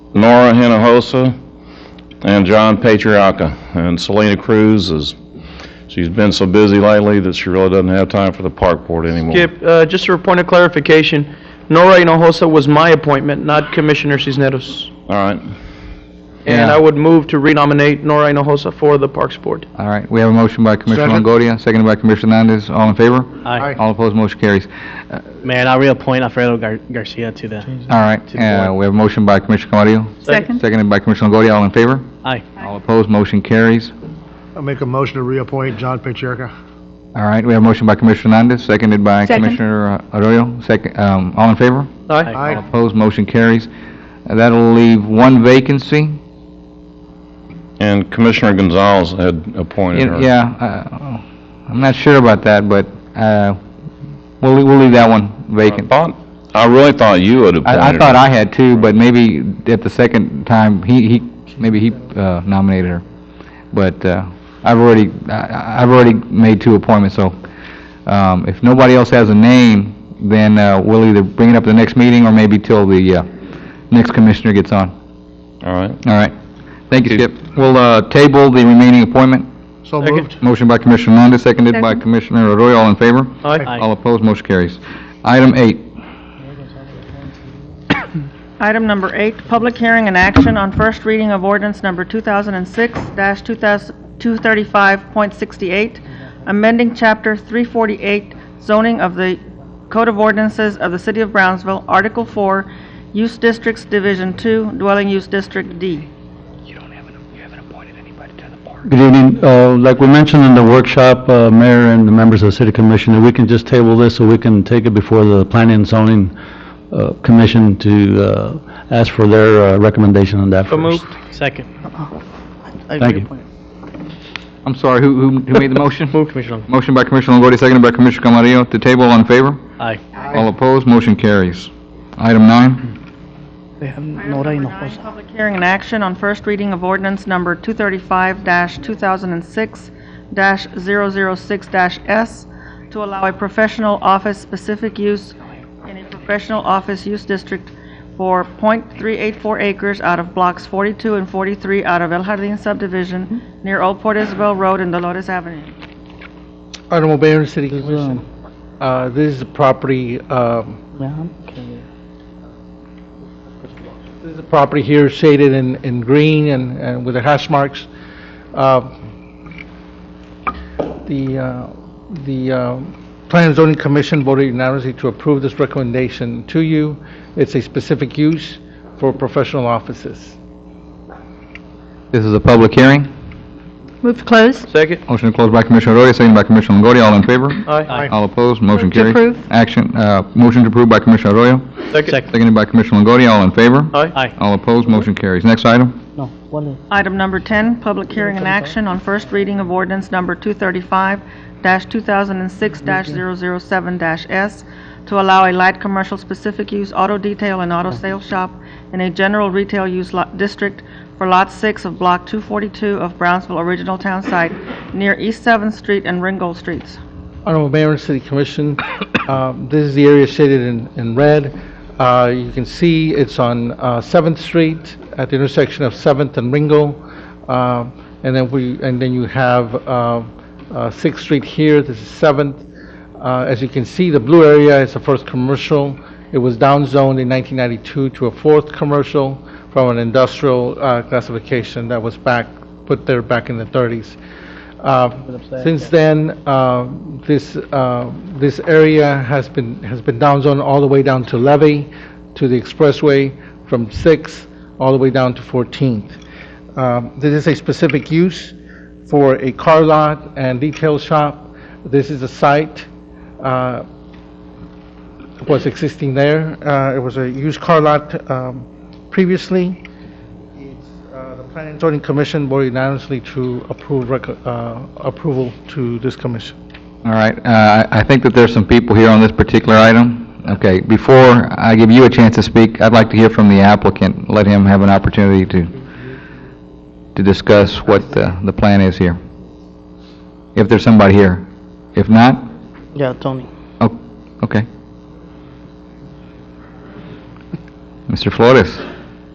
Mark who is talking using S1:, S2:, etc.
S1: Nora Hinojosa and John Patriaca. And Selena Cruz is, she's been so busy lately that she really doesn't have time for the park board anymore.
S2: Skip, uh, just for a point of clarification, Nora Hinojosa was my appointment, not Commissioner Cisneros.
S1: All right.
S2: And
S3: Yeah.
S2: I would move to renominate Nora Hinojosa for the Parks Board.
S3: All right, we have a motion by Commissioner
S4: Second.
S3: Longoria, seconded by Commissioner Hernandez. All in favor?
S4: Aye.
S3: All opposed, motion carries.
S4: Mayor, I'll reappoint Alfredo Gar- Garcia to the,
S3: All right,
S4: the
S3: uh, we have a motion by Commissioner Camarillo,
S5: Second.
S3: seconded by Commissioner Longoria. All in favor?
S4: aye.
S3: All opposed, motion carries.
S4: I'll make a motion to reappoint John Pacheco.
S3: All right, we have a motion by Commissioner Hernandez, seconded by
S5: Second.
S3: Commissioner uh, Arroyo. Second, um, all in favor?
S2: Aye?
S3: All opposed, motion carries. Uh, That'll leave one vacancy.
S1: And Commissioner Gonzalez had appointed her.
S3: Yeah, uh, I'm not sure about that, but, uh, we'll, we'll leave that one
S1: I
S3: vacant.
S1: thought, I really thought you had appointed her.
S3: I, I thought I had too, but maybe at the second time, he, he, maybe he uh, nominated her. But, uh, I've already, I, I've already made two appointments, so, um, if nobody else has a name, then, uh, we'll either bring it up at the next meeting or maybe till the, uh, next commissioner gets on.
S1: All right.
S3: All right. Thank you, Skip. We'll, uh, table the remaining appointment.
S4: So
S2: Second.
S4: moved.
S3: Motion by Commissioner Hernandez, seconded by
S5: Second.
S3: Commissioner Arroyo. All in favor?
S2: Aye?
S3: All opposed, motion carries. Item eight.
S5: Item number eight, public hearing and action on first reading of ordinance number 2006-235.68, amending Chapter 348 zoning of the Code of Ordinances of the City of Brownsville, Article 4, Use Districts Division 2, Dwelling Use District D.
S6: Good evening. Uh, Like we mentioned in the workshop, uh, Mayor and the members of the City Commission, if we can just table this so we can take it before the Planning and Zoning uh, Commission to uh, ask for their uh, recommendation on that
S2: So
S6: first.
S2: moved.
S4: Second.
S6: Thank you.
S3: I'm sorry, who, who who made the motion?
S2: Move, Commissioner.
S3: Motion by Commissioner Longoria, seconded by Commissioner Camarillo. To table, all in favor?
S4: Aye.
S3: All opposed, motion carries. Item nine.
S5: Item number nine, Public hearing and action on first reading of ordinance number 235-2006-006-S to allow a professional office-specific use in a professional office use district for .384 acres out of blocks 42 and 43 out of El Jardín subdivision near Old Port Isabel Road and Dolores Avenue.
S7: Honorable Mayor and City Commission, uh, this is a property, um, this is a property here shaded in, in green and, and with the hash marks. Uh, The, uh, the uh, Plan and Zoning Commission voted unanimously to approve this recommendation to you. It's a specific use for professional offices.
S3: This is a public hearing.
S8: Move to close.
S2: Second?
S3: Motion to close by Commissioner Arroyo, seconded by Commissioner Longoria. All in favor?
S2: Aye?
S3: All opposed, motion
S8: Move to
S3: carries.
S8: approve.
S3: Action, uh, motion to approve by Commissioner Arroyo,
S2: Second?
S3: seconded by Commissioner Longoria. All in favor?
S2: Aye?
S4: Aye.
S3: All opposed, motion carries. Next item.
S5: Item number 10, public hearing and action on first reading of ordinance number 235-2006-007-S to allow a light commercial specific use auto detail and auto sales shop in a general retail use lot district for Lot 6 of Block 242 of Brownsville Original Town Site near East 7th Street and Ringgold Streets.
S7: Honorable Mayor and City Commission, um, this is the area shaded in, in red. Uh, You can see it's on uh, 7th Street at the intersection of 7th and Ringo. Um, And then we, and then you have uh, uh, 6th Street here, this is 7th. Uh, As you can see, the blue area is the first commercial. It was downzoned in 1992 to a fourth commercial from an industrial uh, classification that was back, put there back in the 30s. Uh, Since then, uh, this, uh, this area has been, has been downzoned all the way down to Levy, to the expressway, from 6th all the way down to 14th. Um, This is a specific use for a car lot and detail shop. This is a site, uh, was existing there. Uh, It was a used car lot um, previously. It's, uh, The Planning and Zoning Commission voted unanimously to approve, rec- uh, approval to this commission.
S3: All right, uh, I I think that there's some people here on this particular item. Okay, before I give you a chance to speak, I'd like to hear from the applicant, let him have an opportunity to, to discuss what the, the plan is here. If there's somebody here. If not,
S4: Yeah, Tony.
S3: oh, okay. Mr. Flores?